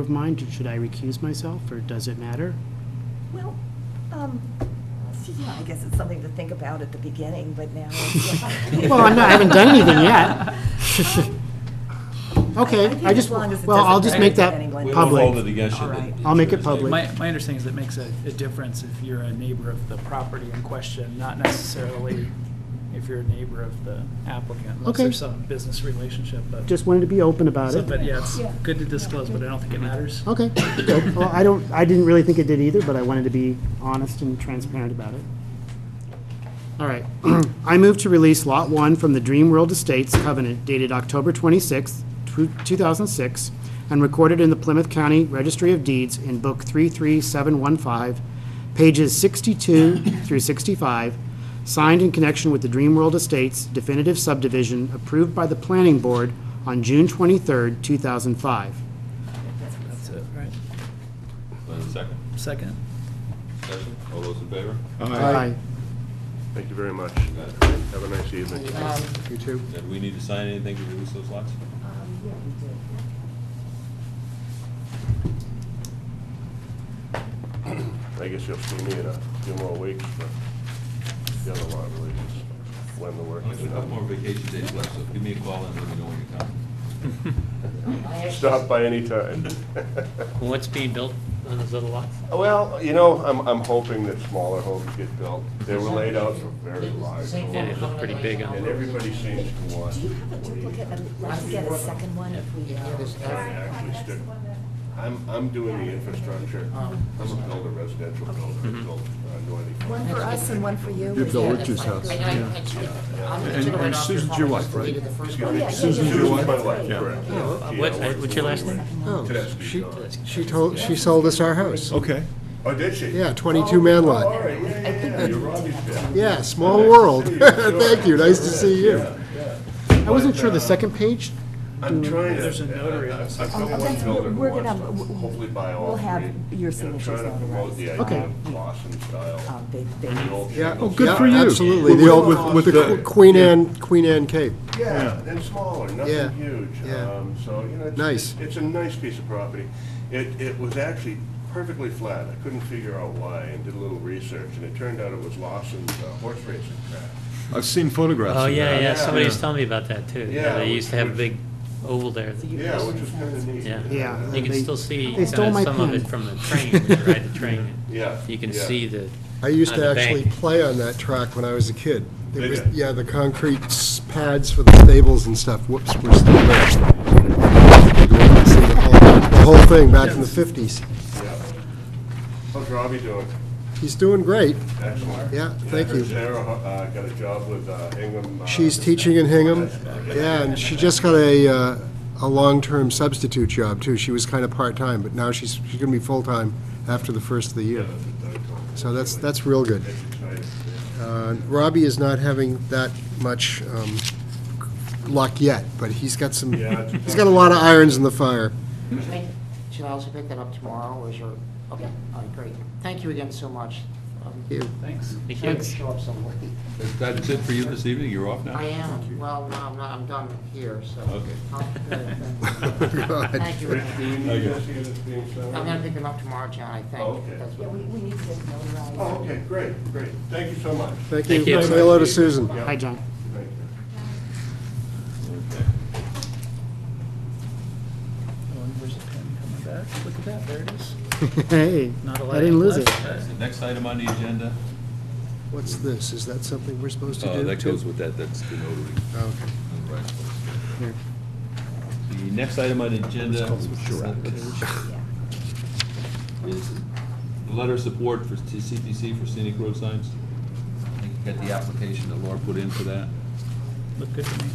of mine, should I recuse myself, or does it matter? Well, um, see, yeah, I guess it's something to think about at the beginning, but now. it's- Well, I'm not, I haven't done anything yet. I Okay, think I just, as long as it well, I'll just doesn't make hurt that anyone. We We will hold public. it against you. All right. I'll make it public. My, my understanding is it makes a, a difference if you're a neighbor of the property in question, not necessarily if you're a neighbor of the applicant, unless Okay. there's some business relationship, but. Just wanted to be open about So, it. but yeah, it's Yeah. good to disclose, but I don't think it matters. Okay, Oh. good. Well, I don't, I didn't really think it did either, but I wanted to be honest and transparent about it. All right. I move to release Lot 1 from the Dream World Estates covenant dated October 26, 2006, and recorded in the Plymouth County Registry of Deeds in Book 33715, pages 62 through 65, signed in connection with the Dream World Estates definitive subdivision approved by the Planning Board on June 23, 2005. That's it, right? Lynn, second. Second. oh, Discussion? All those in favor? Aye. Thank you very much. You got it. Have a nice evening. You too. Did we need to sign anything to release those lots? I guess you'll see me in a few more weeks, but the other lot really is when the work Only is got a couple more done. vacation days left, so give me a call and let me know when you're coming. Stop by any time. What's being built on those other lots? Well, you know, I'm, I'm hoping that smaller homes get built. They were laid out for very large Yeah, homes, it looked pretty big on and them. everybody seems to want Do you have a duplicate, and let's get a second one if we. to actually stick. I'm, I'm doing the infrastructure. Um, I'm a builder, residential builder, Mm-hmm. I built uh, Northie. One for us and one for you. You built Rich's house. And- and Susan's your wife, right? Susan's your wife? My wife, correct. Yeah, What, I work what's your last name? Oh, Tedeschi, she, sorry. she told, Oh, she sold us our house. Okay. Oh, did she? Yeah, 22-man All lot. right, yeah, yeah, yeah, you're Robbie's dad. Yeah, small world. Thank you, nice to see you. I wasn't sure the second page. I'm trying to. There's a notary on the I've got Oh, one that's- builder who we're wants gonna- to w- Hopefully buy all we'll three. have your And signatures I'm on trying to the promote the Okay. idea of Boston style. Um, they- they- the old Yeah. English Oh, good yeah, for you. Absolutely, the old, with, with the Queen Anne, Queen Anne Cape. Yeah, and smaller, Yeah, nothing huge. yeah. Um, So, you know, it's- Nice. it's, it's a nice piece of property. It, it was actually perfectly flat. I couldn't figure out why and did a little research, and it turned out it was Lawson's uh, horse racing track. I've seen photographs Oh, of yeah, that. yeah, somebody was Yeah. telling me about that too. Yeah, Yeah, they used to have a which- big oval there. that- Yeah, which was kind of neat. Yeah. Yeah. You can They- still see they stole kinda my some of pen. it from the train, when you ride the train. Yeah, You can yeah. see the, I used On to the actually bank. play on that track when I was a kid. There Did was- ya? Yeah, the concrete s- pads for the stables and stuff, whoops, were still there. You go up and see The whole- the whole thing back in the 50s. Yeah. How's Robbie doing? He's doing great, Excellent. yeah, thank you. Sarah uh, got a job with uh, Hingham. uh, She's teaching in Hingham, yeah, and she just got a, uh, a long-term substitute job, too. She was kind of part-time, but now she's, she's gonna be full-time after the first of the year. So that's, that's real good. It's exciting. Uh, Robbie is not having that much um, luck yet, but he's got some, Yeah, it's- he's got a lot of irons in the fire. Should I also pick that up tomorrow, or is your, okay, all right, great. Thank you again so much. Um, You- Thanks. thank I had you. to show up somewhere. That's it for you this evening? You're off now? I am, well, no, I'm not, I'm done here, so. Okay. I'll- God. Thank you. Rick, do we need Okay. to see this being sent I'm out? gonna pick them up tomorrow, John, I think. Okay. That's Yeah, what- we, we need to get notarized. Oh, okay, great, great. Thank you so much. Thank Thank you. you. Say hello to Susan. Hi, John. Thank you. Okay. Oh, and where's the pen coming back? Look at that, there it is. Hey, Not a I lot didn't lose it. left. That's the next item on the agenda. What's this? Is that something we're supposed to do? Uh, That too? Oh, goes with that, that's the notary. Okay. Right. Here. The next item on the agenda is the letter of support for t- CPC for scenic road signs. I think you got the application that Laura put in for that. Look good to me.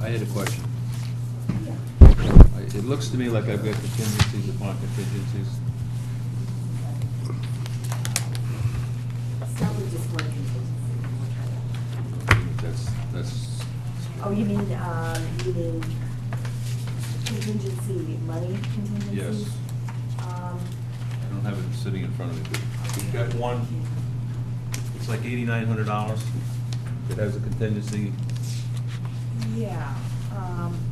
I had a question. I- It looks to me like I've got contingencies upon contingencies. Somebody just wanted to- That's, that's, Oh, you mean, um, you mean contingency, money contingency? yes, Um, I don't have it sitting in front of me, but we've got one, it's like eighty-nine hundred dollars. It has a contingency yeah, um.